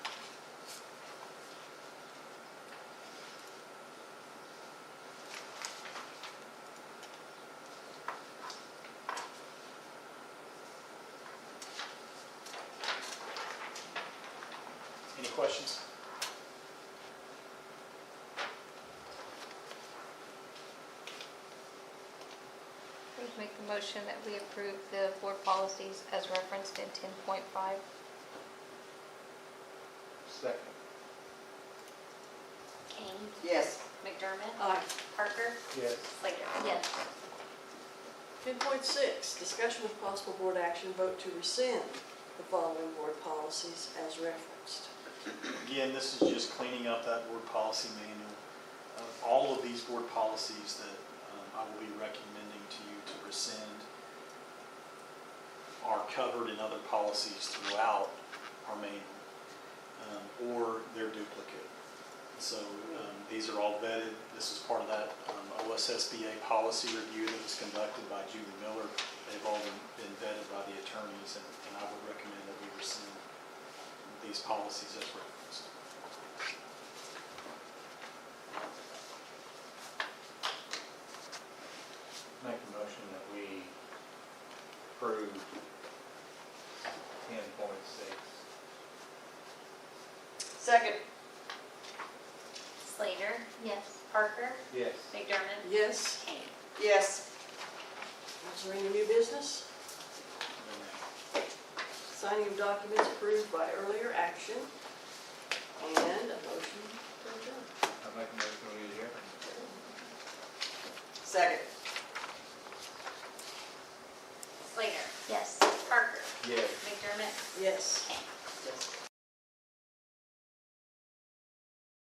Any questions? I would make the motion that we approve the board policies as referenced in 10.5. Second. Kane. Yes. McDermott. Aye. Parker. Yes. Slater. Yes. Ten point six, discussion with possible board action, vote to rescind the following board policies as referenced. Again, this is just cleaning up that board policy manual. Of All of these board policies that um, I will be recommending to you to rescind are covered in other policies throughout our manual, um, or they're duplicate. So um, these are all vetted. This is part of that um, OSSBA policy review that was conducted by Julie Miller. They've all been been vetted by the attorneys, and and I would recommend that we rescind these policies as referenced. Make a motion that we approve ten point six. Second. Slater. Yes. Parker. Yes. McDermott. Yes, Kane. Yes. is there any new business? Signing of documents approved by earlier action.